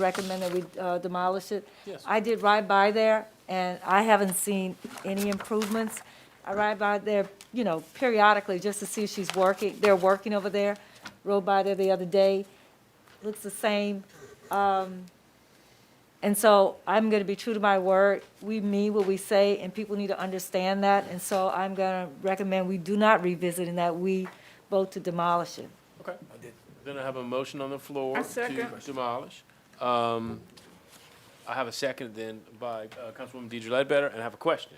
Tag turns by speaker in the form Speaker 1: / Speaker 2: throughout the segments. Speaker 1: recommend that we uh, demolish it.
Speaker 2: Yes.
Speaker 1: I did ride by there, and I haven't seen any improvements. I ride by there, you know, periodically, just to see if she's working, they're working over there. Rode by there the other day, looks the same. Um, And so I'm going to be true to my word. We mean what we say, and people need to understand that. And so I'm going to recommend we do not revisit and that we vote to demolish it.
Speaker 2: Okay. Then I have a motion on the floor
Speaker 3: I
Speaker 2: to
Speaker 3: second.
Speaker 2: demolish. Um, I have a second then by uh, Councilwoman Deidre Ledbetter, and I have a question.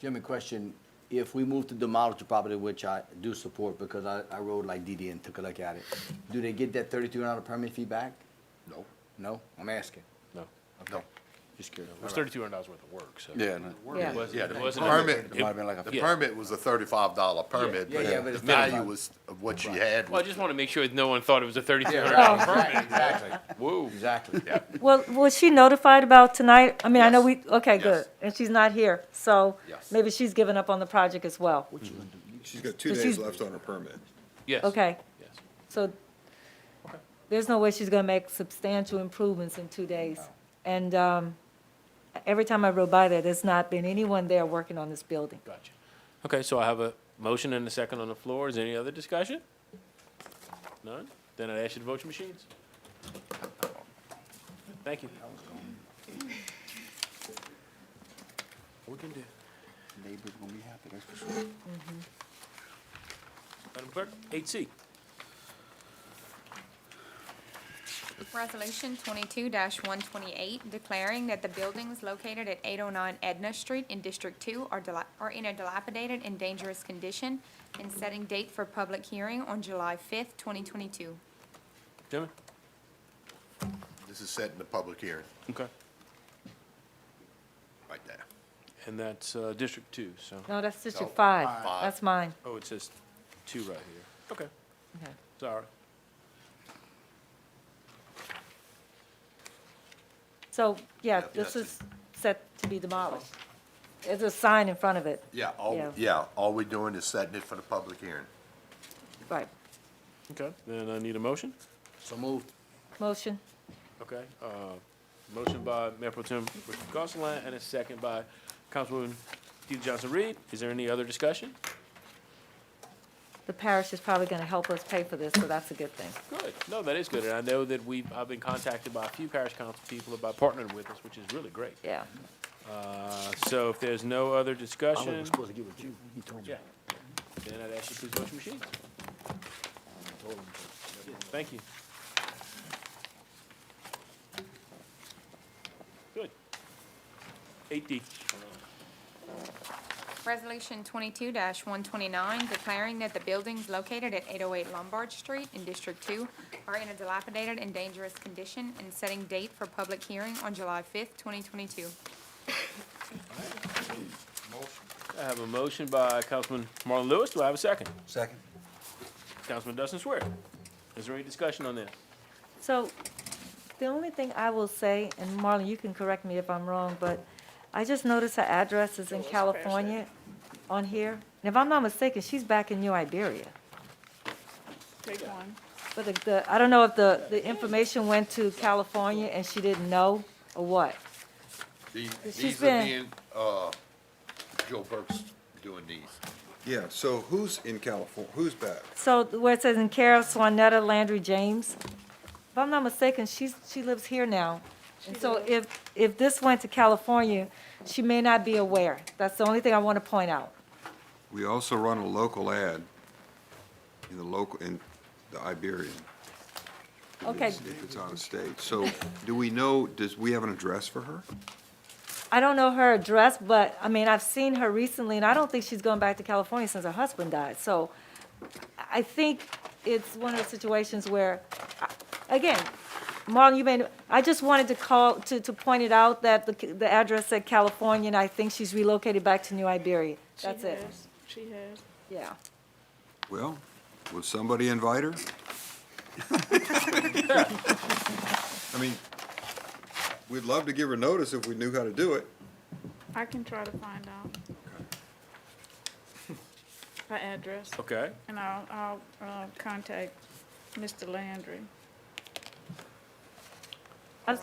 Speaker 4: Jimmy, question, if we move to demolish the property, which I do support because I, I rode like DD and took a look at it, do they get that thirty-two hundred permit fee back? No. No? I'm asking.
Speaker 2: No,
Speaker 4: No. Just curious.
Speaker 2: it was thirty-two hundred dollars worth of work, so.
Speaker 5: Yeah, no.
Speaker 1: Yeah.
Speaker 2: It wasn't-
Speaker 5: yeah,
Speaker 2: it
Speaker 5: the
Speaker 2: wasn't-
Speaker 5: permit,
Speaker 2: it-
Speaker 5: it might have been like a-
Speaker 2: yeah.
Speaker 5: the permit was a thirty-five dollar permit,
Speaker 4: Yeah, yeah,
Speaker 5: but
Speaker 4: but
Speaker 5: the
Speaker 4: it's
Speaker 5: value
Speaker 4: minimum.
Speaker 5: was of what you had.
Speaker 2: Well, I
Speaker 5: was-
Speaker 2: just want to make sure that no one thought it was a thirty-two
Speaker 4: Yeah,
Speaker 2: hundred
Speaker 4: right,
Speaker 2: dollar
Speaker 4: exactly,
Speaker 2: permit.
Speaker 4: exactly,
Speaker 2: Whoa.
Speaker 4: exactly.
Speaker 5: Yeah.
Speaker 1: Well, was she notified about tonight? I mean, I know we,
Speaker 5: Yes.
Speaker 1: okay, good.
Speaker 5: Yes.
Speaker 1: And she's not here, so
Speaker 5: Yes.
Speaker 1: maybe she's given up on the project as well.
Speaker 6: She's got
Speaker 1: So
Speaker 6: two days
Speaker 1: she's-
Speaker 6: left on her permit.
Speaker 2: Yes.
Speaker 1: Okay,
Speaker 2: Yes.
Speaker 1: so there's no way she's gonna make substantial improvements in two days. And, um, every time I rode by there, there's not been anyone there working on this building.
Speaker 2: Gotcha. Okay, so I have a motion and a second on the floor. Is there any other discussion? None? Then I'd ask you to vote your machines. Thank you. We can do.
Speaker 4: Neighbors gonna be happy, that's for sure.
Speaker 2: Madam Clerk, eight C.
Speaker 7: Resolution twenty-two one twenty-eight, declaring that the buildings located at eight oh nine Edna Street in District Two are dila- are in a dilapidated and dangerous condition, and setting date for public hearing on July fifth, twenty twenty-two.
Speaker 2: Gentlemen?
Speaker 5: This is set in the public hearing,
Speaker 2: Okay.
Speaker 5: right there.
Speaker 2: And that's uh, District Two, so,
Speaker 1: No, that's District
Speaker 5: No,
Speaker 1: Five.
Speaker 5: five.
Speaker 1: That's mine.
Speaker 2: oh, it says two right here. Okay,
Speaker 1: Okay.
Speaker 2: sorry.
Speaker 1: So, yeah,
Speaker 5: Yeah,
Speaker 1: this
Speaker 5: yes.
Speaker 1: is set to be demolished. There's a sign in front of it,
Speaker 5: Yeah, all,
Speaker 1: Yeah.
Speaker 5: yeah, all we're doing is setting it for the public hearing.
Speaker 1: right.
Speaker 2: Okay, then I need a motion.
Speaker 4: So moved.
Speaker 1: Motion?
Speaker 2: Okay, uh, motion by Mayor Pro Tem Richard Gosselin and a second by Councilwoman DeeDee Johnson-Reed. Is there any other discussion?
Speaker 1: The parish is probably gonna help us pay for this, so that's a good thing.
Speaker 2: Good, no, that is good, and I know that we, I've been contacted by a few parish council people about partnering with us, which is really great.
Speaker 1: Yeah.
Speaker 2: Uh, so if there's no other
Speaker 4: I
Speaker 2: discussion,
Speaker 4: was supposed to get with you, he told me.
Speaker 2: yeah, then I'd ask you to please vote your machines. Thank you. Good. Eight D.
Speaker 7: Resolution twenty-two one twenty-nine, declaring that the buildings located at eight oh eight Lombard Street in District Two are in a dilapidated and dangerous condition, and setting date for public hearing on July fifth, twenty twenty-two.
Speaker 2: I have a motion by Councilman Marlon Lewis. Do I have a second?
Speaker 4: Second.
Speaker 2: Councilman Dustin Swear. Is there any discussion on this?
Speaker 1: So, the only thing I will say, and Marlon, you can correct me if I'm wrong, but I just noticed her address is in California on here. And if I'm not mistaken, she's back in New Iberia.
Speaker 3: Take one.
Speaker 1: But the- the, I don't know if the, the information went to California and she didn't know, or what.
Speaker 5: The-
Speaker 1: It's just
Speaker 5: These
Speaker 1: been-
Speaker 5: are being, uh, Joe Burke's doing these.
Speaker 6: Yeah, so who's in California? who's back?
Speaker 1: So where it says in care of Swanetta Landry James, if I'm not mistaken, she's, she lives here now. And so if, if this went to California, she may not be aware. That's the only thing I want to point out.
Speaker 6: We also run a local ad in the local, in the Iberian. if
Speaker 1: Okay.
Speaker 6: it's- If it's out of state. So do we know, does, we have an address for her?
Speaker 1: I don't know her address, but, I mean, I've seen her recently, and I don't think she's gone back to California since her husband died. So I think it's one of those situations where, again, Marlon, you may, I just wanted to call, to, to point it out that the, the address said California, and I think she's relocated back to New Iberia.
Speaker 3: She
Speaker 1: That's it,
Speaker 3: has. She has.
Speaker 1: yeah.
Speaker 6: Well, would somebody invite her? I mean, we'd love to give her notice if we knew how to do it.
Speaker 3: I can try to find out. Her address,
Speaker 2: Okay.
Speaker 3: and I'll, I'll, uh, contact Mr. Landry.